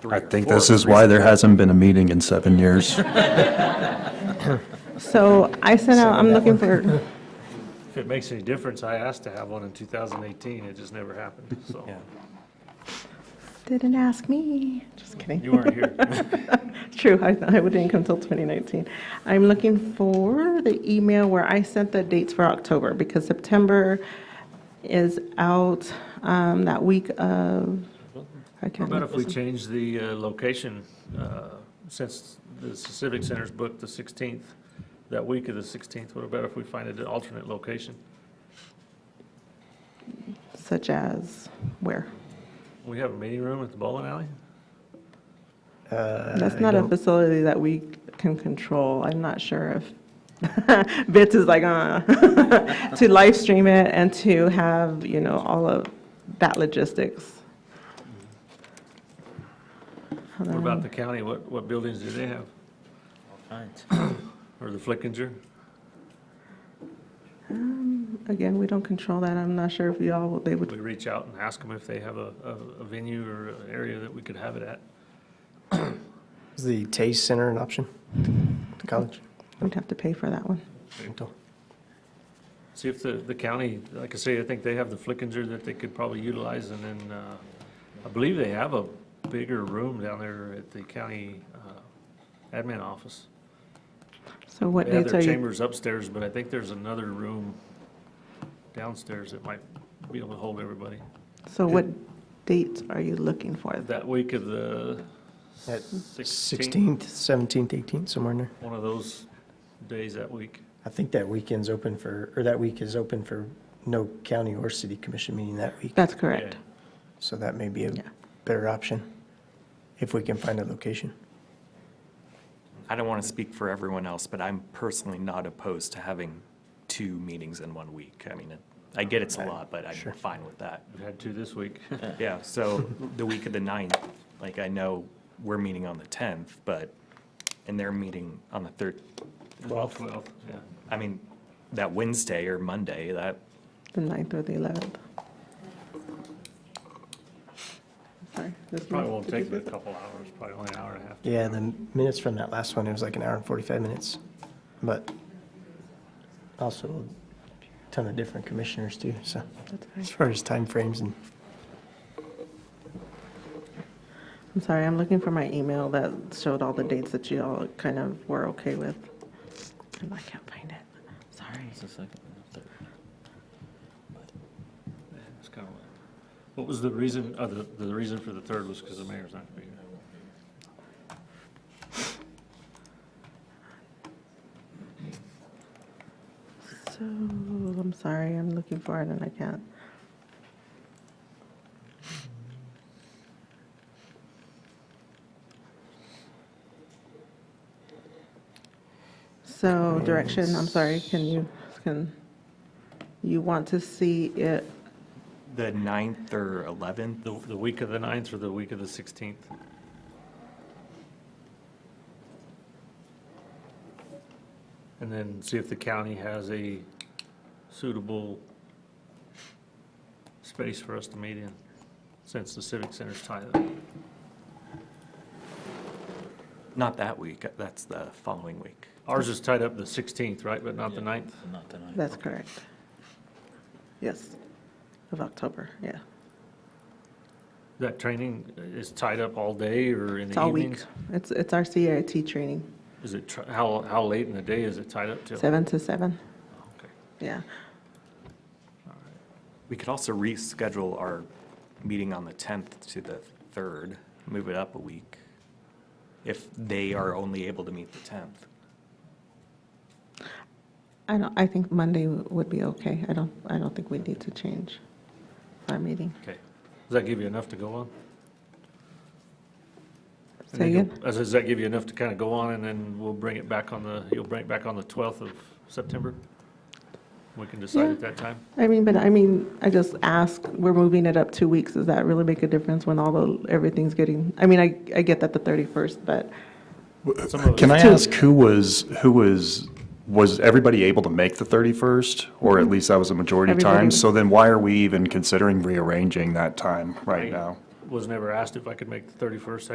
three I or think four this is why reasons. there hasn't been a meeting in seven years. So I sent out, I'm looking for, If it makes any difference, I asked to have one in 2018, it just never happened, so. didn't ask me, just kidding. You weren't here. True, I, I didn't come till 2019. I'm looking for the email where I sent the dates for October, because September is out um, that week of, I How can't, about if we change the uh, location, uh, since the Civic Center's booked the 16th, that week of the 16th, what about if we find an alternate location? such as where? We have a meeting room at the bowling alley? That's not a facility that we can control. I'm not sure if, Bits is like, uh, to live stream it and to have, you know, all of that logistics. Hold What about on. the county, what, what buildings do they have? Or the Flickinger? Um, Again, we don't control that. I'm not sure if y'all, would- they We would, reach out and ask them if they have a, a a venue or an area that we could have it at. Is the Taste Center an option? The college? we'd have to pay for that one. See if the, the county, like I say, I think they have the Flickinger that they could probably utilize, and then, uh, I believe they have a bigger room down there at the county, uh, admin office. So what They have dates their are you? chambers upstairs, but I think there's another room downstairs that might be able to hold everybody. So what dates are you looking for? That week of the At sixteenth, 16th, 17th, 18th, somewhere in there. one of those days that week. I think that weekend's open for, or that week is open for no county or city commission meeting that week. That's correct. Yeah. So that may be a Yeah. better option if we can find a location. I don't want to speak for everyone else, but I'm personally not opposed to having two meetings in one week. I mean, it- I get it's a lot, but I'm Sure. fine with that. We've had two this week. Yeah, so the week of the 9th, like, I know we're meeting on the 10th, but, and they're meeting on the 3rd, Twelve. Twelve, yeah. I mean, that Wednesday or Monday, that, The 9th or the 11th? Sorry. this Probably one. won't take but a couple hours, probably only an hour and a half. Yeah, the minutes from that last one, it was like an hour and 45 minutes. But also a ton of different commissioners too, so That's fine. as far as timeframes and I'm sorry, I'm looking for my email that showed all the dates that you all kind of were okay with. And I can't find it. Sorry. It's kind of, what was the reason, uh, the, the reason for the third was because the mayor's not gonna be here. So, I'm sorry, I'm looking for it and I can't. So direction, I'm sorry, can you, can, you want to see it, the 9th or 11th? The, the week of the ninth or the week of the sixteenth? And then see if the county has a suitable space for us to meet in, since the civic center's tied up. Not that week, that's the following week. Ours is tied up the sixteenth, right, but not the ninth? Not tonight. that's correct? Yes, of October, yeah. That training is tied up all day or in It's the all week. evenings? It's, it's our CIT training, Is it, tr- how, how late in the day is it tied up till? seven to seven, Okay. yeah. We could also reschedule our meeting on the 10th to the 3rd, move it up a week, if they are only able to meet the 10th. I don't, I think Monday would be okay. I don't, I don't think we need to change our meeting. Okay. Does that give you enough to go on? And Say then again? you'll- I said, Does that give you enough to kind of go on, and then we'll bring it back on the, you'll bring it back on the 12th of September? We can decide Yeah. at that time? I mean, but I mean, I just ask, we're moving it up two weeks. Does that really make a difference when all the, everything's getting, I mean, I, I get that the 31st, but Some of Can I us- ask who was, who was, was everybody able to make the 31st? Or at least that was a majority Everybody time? was- So then why are we even considering rearranging that time right now? Was never asked if I could make the 31st,